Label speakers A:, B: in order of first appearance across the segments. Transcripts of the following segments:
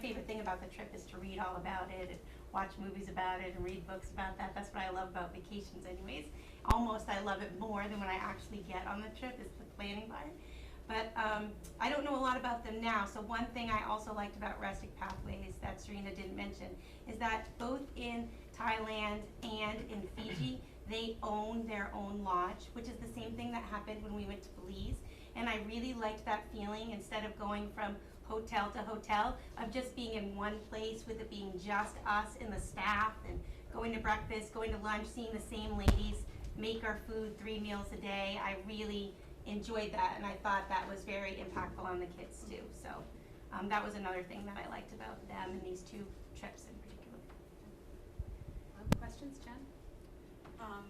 A: favorite thing about the trip is to read all about it and watch movies about it and read books about that. That's what I love about vacations anyways. Almost I love it more than when I actually get on the trip is the planning part. But um, I don't know a lot about them now. So one thing I also liked about Rustic Pathways that Serena didn't mention is that both in Thailand and in Fiji, they own their own lodge, which is the same thing that happened when we went to Belize. And I really liked that feeling instead of going from hotel to hotel of just being in one place with it being just us and the staff and going to breakfast, going to lunch, seeing the same ladies make our food three meals a day. I really enjoyed that and I thought that was very impactful on the kids too. So um, that was another thing that I liked about them and these two trips in particular.
B: Um, questions, Jen?
C: Um,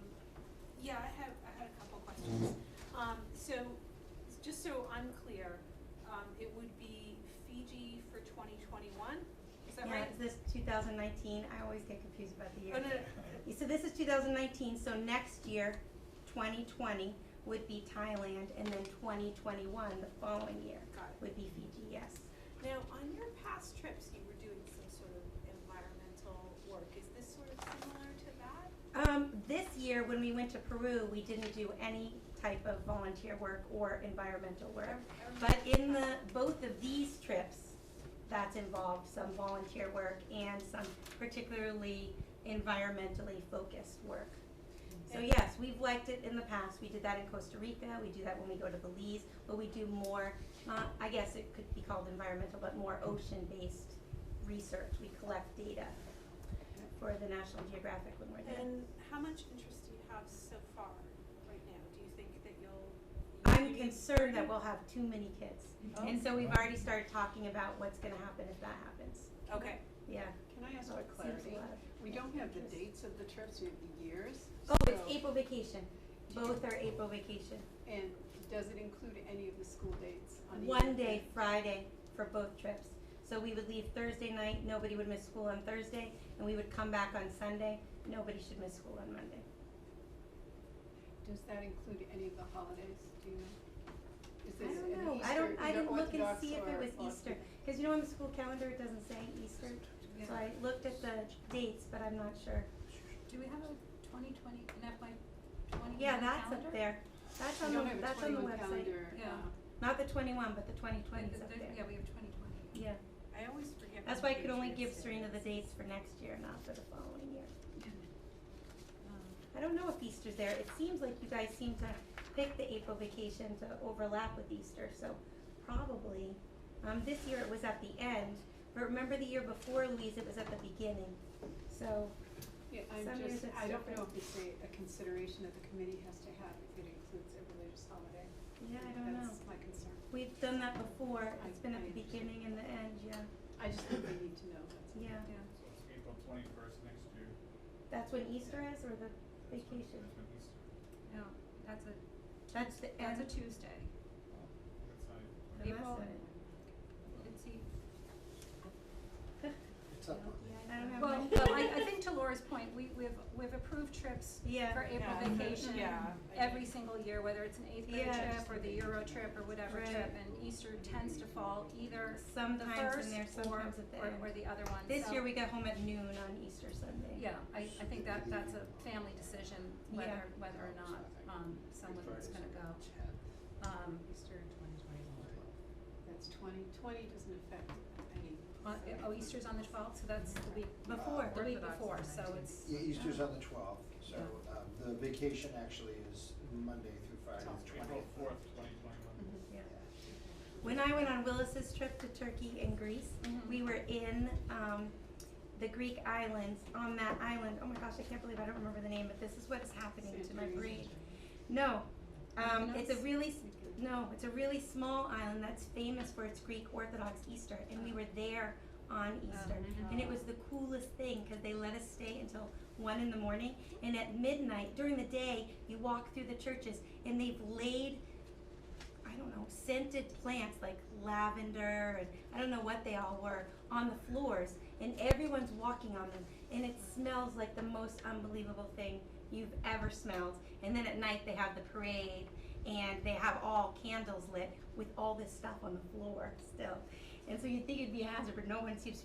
C: yeah, I have, I had a couple questions. Um, so, just so I'm clear, um, it would be Fiji for twenty twenty-one, is that
A: Yeah,
C: right?
A: is this 2019? I always get confused about the year.
C: Oh, no, no,
A: So this is 2019, so next year, 2020, would be Thailand, and then 2021, the following year,
C: got it.
A: would be Fiji, yes.
C: Now, on your past trips, you were doing some sort of environmental work, is this sort of similar to that?
A: Um, this year, when we went to Peru, we didn't do any type of volunteer work or environmental work.
C: I- I remember-
A: But in the, both of these trips, that's involved some volunteer work and some particularly environmentally focused work. So
C: And-
A: yes, we've liked it in the past, we did that in Costa Rica, we do that when we go to Belize, but we do more, not, I guess it could be called environmental, but more ocean-based research, we collect data for the National Geographic when we're there.
C: And how much interest do you have so far right now? Do you think that you'll?
A: I'm
C: you-
A: concerned that we'll have too many kids,
C: Oh,
A: and so we've already started talking about what's gonna happen if that happens,
C: Okay,
A: yeah.
D: Can I ask
A: So
D: for
A: it seems a
D: clarity?
A: lot of-
D: We don't have the dates of the trips, we have the years.
A: Oh, it's
D: so-
A: April vacation. Both are April vacation.
D: And does it include any of the school dates on either?
A: One day, Friday, for both trips. So we would leave Thursday night, nobody would miss school on Thursday, and we would come back on Sunday, nobody should miss school on Monday.
D: Does that include any of the holidays, do you know? Is
A: I
D: this an
A: don't know, I
D: Easter-
A: don't, I
D: either
A: didn't look and
D: Orthodox
A: see if
D: or-
A: it was
D: or-
A: Easter, cause you know on the school calendar, it doesn't say Easter.
D: Yeah.
A: So I looked at the dates, but I'm not sure.
B: Do we have a twenty twenty, an FY twenty
A: Yeah,
B: calendar?
A: that's up there. That's on
D: We
A: the,
D: don't have a
A: Um, that's on the
D: 21
A: website.
D: calendar,
B: Yeah.
D: uh,
A: Not the twenty-one, but the twenty
B: Like,
A: twenty's
B: the-
A: up
B: there-
A: there.
B: Yeah, we have twenty twenty.
A: Yeah,
C: I always forget.
A: that's why
C: when
A: I could only give
C: Patriots Day
A: Serena the
C: is.
A: dates for next year, not for the following year.
B: Um,
A: I don't know if Easter's there. It seems like you guys seem to pick the April vacation to overlap with Easter, so probably. Um, this year it was at the end, but remember the year before, Louise, it was at the beginning. So,
D: Yeah,
A: Some
D: I'm
A: years
D: just,
A: it's
D: I don't know
A: different.
D: if it's a, a consideration that the committee has to have if it includes a religious holiday.
A: yeah, I don't know.
D: That's my concern.
A: We've done that before. It's been at
D: I-
A: the
D: I-
A: beginning and the end, yeah,
D: I just think they need to know, that's all.
A: yeah.
B: Yeah,
E: So it's April twenty-first next year.
A: That's when Easter is or the,
E: That's when- um,
A: Vacation.
E: That's when Easter.
B: no, that's a,
A: that's the
B: that's a
A: end.
B: Tuesday.
E: That's not even-
A: I must
B: April-
A: have it.
B: Let's see.
F: It's up on
A: I don't have
B: Well,
A: my-
B: but I, I think to Laura's point, we, we've, we've approved trips
A: Yeah.
B: for April
C: Yeah.
B: vacation
C: Yeah.
B: every single year, whether it's an eighth grade
A: Yeah.
B: trip or the Euro trip or whatever
A: Right.
B: trip, and Easter tends to fall either the
A: Sometimes
B: first
A: in there,
B: or,
A: sometimes at the
B: or, or
A: end.
B: the other one,
A: This
B: so-
A: year we got home at noon on Easter Sunday.
B: Yeah, I, I think that, that's a family decision,
A: Yeah.
B: whether, whether or not, um, someone
F: Good
B: is
F: Friday,
B: gonna go.
F: Saturday,
B: Um,
D: Easter twenty twenty-one. That's twenty, twenty doesn't affect any.
B: on- oh, Easter's on the twelfth, so that's the week,
A: Before,
B: the week
F: Orthodox
B: before, so it's.
F: 10th. Yeah, Easter's on the twelfth, so
B: Yeah.
F: um, the vacation actually is Monday through Friday,
D: Twelve.
F: the twentieth.
E: April fourth, twenty
D: Mm-hmm.
E: twenty-one.
A: Yeah. When I went on Willis's trip to Turkey and Greece,
B: Mhm.
A: we were in um, the Greek islands. On that island, oh my gosh, I can't believe I don't remember the name, but this is what is happening to my brain. No, um, it's a really s- no, it's a really small island that's famous for its Greek Orthodox Easter, and we were there on Easter, and it was the coolest thing because they let us stay until one in the morning, and at midnight during the day you walk through the churches, and they've laid I don't know, scented plants like lavender and I don't know what they all were on the floors and everyone's walking on them and it smells like the most unbelievable thing you've ever smelled. And then at night they have the parade and they have all candles lit with all this stuff on the floor still. And so you'd think it'd be a hazard, but no one seems to